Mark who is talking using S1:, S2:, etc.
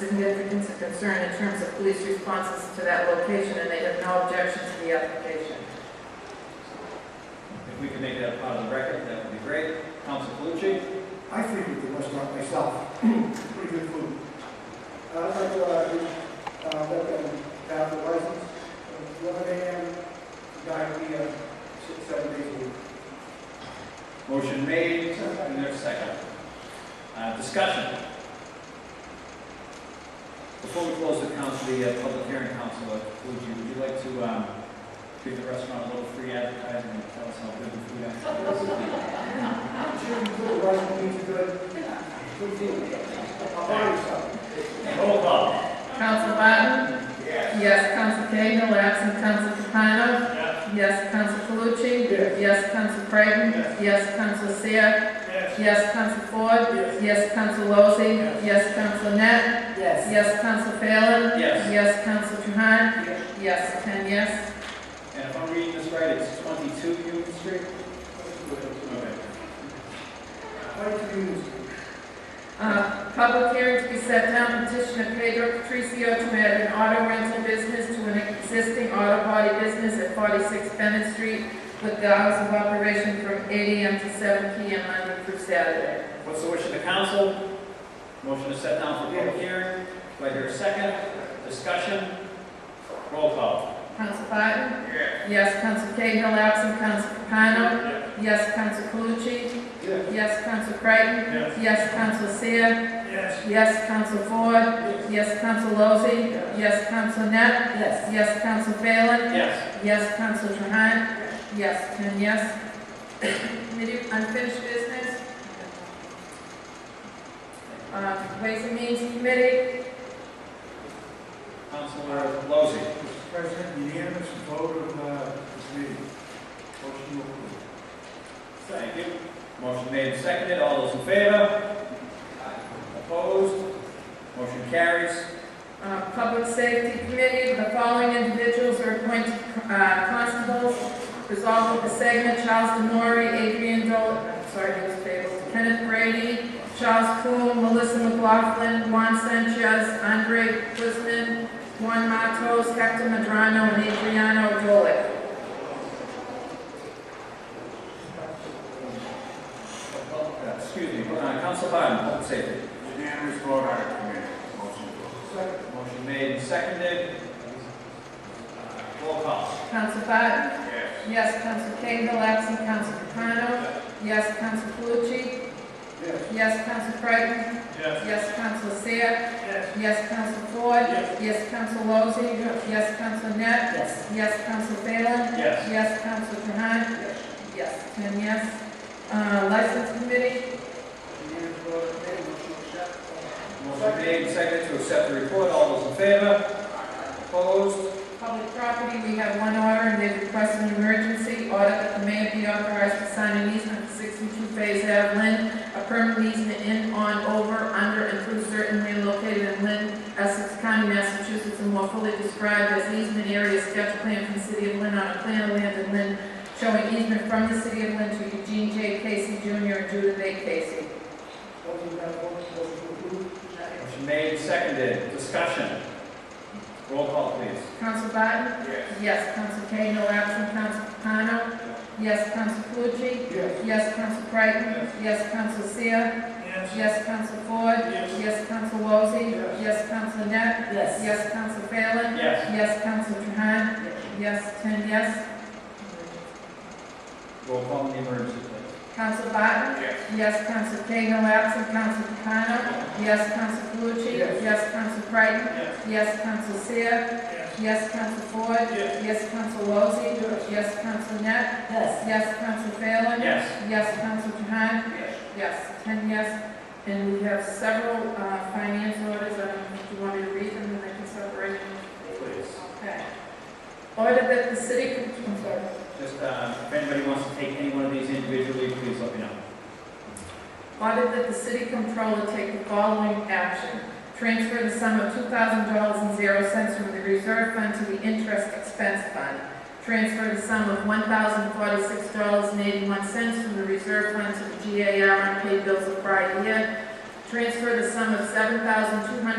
S1: significance and concern in terms of police responses to that location, and they have no objection to the application.
S2: If we could make that a part of the record, that would be great. Council Calucci?
S3: I frequent the restaurant myself. Pretty good food. I'd like to, uh, uh, let them have the license, from eleven AM, diarrhea, uh, six, seven days a week.
S2: Motion made, and there's a second. Uh, Discussion. Before we close the council, the uh, public hearing, Council Calucci, would you like to um, give the restaurant a little free advertising and tell us how good the food actually is?
S3: Sure, you put the restaurant into good, good food. I'll buy you some.
S2: Roll call.
S1: Council Barton?
S3: Yes.
S1: Yes. Council Cahill, absent Council Capano? Yes. Council Calucci?
S3: Yes.
S1: Council Creighton?
S2: Yes.
S1: Council Seer?
S3: Yes.
S1: Yes. Council Ford?
S3: Yes.
S1: Council Lozey?
S3: Yes.
S1: Council Net?
S4: Yes.
S1: Council Phelan?
S2: Yes.
S1: Council Trahan?
S3: Yes.
S1: Yes, ten yes.
S2: And if I'm reading this right, it's 22 Union Street? Okay.
S3: Like to use.
S1: Uh, Public hearing to be set down, petition of Pedro Patricio to add an auto rental business to an existing auto body business at 46 Bennett Street with the hours of operation from 8 AM to 7 PM Monday through Saturday.
S2: What's the wish of the council? Motion to set down for public hearing. Do I hear a second? Discussion? Roll call.
S1: Council Biden?
S2: Yes.
S1: Yes. Council Cahill, absent Council Capano?
S2: Yes.
S1: Yes. Council Calucci?
S3: Yes.
S1: Yes. Council Creighton?
S2: Yes.
S1: Yes. Council Seer?
S3: Yes.
S1: Yes. Council Ford? Yes. Council Lozey?
S3: Yes.
S1: Yes. Council Net?
S4: Yes.
S1: Yes. Council Phelan?
S2: Yes.
S1: Yes, Council Trahan? Yes, ten yes. Committee unfinished business? Uh, Ways and Means Committee?
S2: Councilor Lozey.
S3: Mr. President, unanimous vote of, uh, this meeting. Motion to approve.
S2: Thank you. Motion made and seconded. All those in favor? Opposed? Motion carries.
S1: Uh, Public Safety Committee, the following individuals are appointed uh, constables. Resolved with the segment Charles Demory, Adrian Dole, I'm sorry, he was tabled, Kenneth Brady, Charles Coon, Melissa McLaughlin, Juan Sanchez, Andre Quisman, Juan Matos, Hector Madrano, and Adriano Dolick.
S2: Uh, Excuse me, uh, Council Biden, public safety.
S5: Unanimous vote out of committee, motion to approve.
S2: Motion made and seconded. Uh, Roll call.
S1: Council Biden?
S5: Yes.
S1: Yes. Council Cahill, absent Council Capano? Yes. Council Calucci?
S3: Yes.
S1: Yes. Council Creighton?
S2: Yes.
S1: Yes. Council Seer?
S3: Yes.
S1: Yes, Council Ford. Yes. Council Lozey. Yes. Council Net.
S4: Yes.
S1: Yes, Council Phelan.
S2: Yes.
S1: Yes, Council Trahan. Yes, ten yes. Uh, License Committee,
S3: Unanimous vote of committee, motion to accept.
S2: Motion made and seconded to accept the report. All those in favor? Opposed?
S1: Public Property, we have one order, and they've requested an emergency order that the mayor be authorized to sign an easement for sixty-two Phase Ave Lynn, a permanent easement in, on, over, under, and through certain land located in Lynn, Essex County, Massachusetts, and more fully described as easement area sketch plan from the city of Lynn on a plan of land in Lynn, showing easement from the city of Lynn to Eugene J. Casey Jr. and Judith A. Casey.
S3: Closing that vote, motion to approve.
S2: Motion made, seconded, discussion. Roll call, please.
S1: Council Biden?
S5: Yes.
S1: Yes. Council Cahill, absent. Council Capano? Yes. Council Calucci?
S3: Yes.
S1: Yes, Council Creighton. Yes, Council Seer.
S3: Yes.
S1: Yes, Council Ford.
S3: Yes.
S1: Yes, Council Lozey.
S3: Yes.
S1: Yes, Council Net.
S4: Yes.
S1: Yes, Council Phelan.
S2: Yes.
S1: Yes, Council Trahan. Yes, ten yes.
S2: Roll call on the emergency, please.
S1: Council Barton.
S5: Yes.
S1: Yes, Council Cahill, absent Council Capano. Yes, Council Calucci.
S3: Yes.
S1: Yes, Council Creighton.
S2: Yes.
S1: Yes, Council Seer.
S3: Yes.
S1: Yes, Council Ford.
S3: Yes.
S1: Yes, Council Lozey.
S3: Yes.
S1: Yes, Council Net.
S4: Yes.
S1: Yes, Council Phelan.
S2: Yes.
S1: Yes, Council Trahan. Yes, ten yes, and we have several uh, finance orders, I don't know if you want me to read them, and I can separate them.
S2: Please.
S1: Okay. Order that the city, con- I'm sorry.
S2: Just, uh, if anybody wants to take any one of these individually, please let me know.
S1: Order that the city controller take the following action. Transfer the sum of two thousand dollars and zero cents from the reserve fund to the interest expense fund. Transfer the sum of one thousand forty-six dollars and eighty-one cents from the reserve fund to the GAR unpaid bills of prior year. Transfer the sum of seven thousand two hundred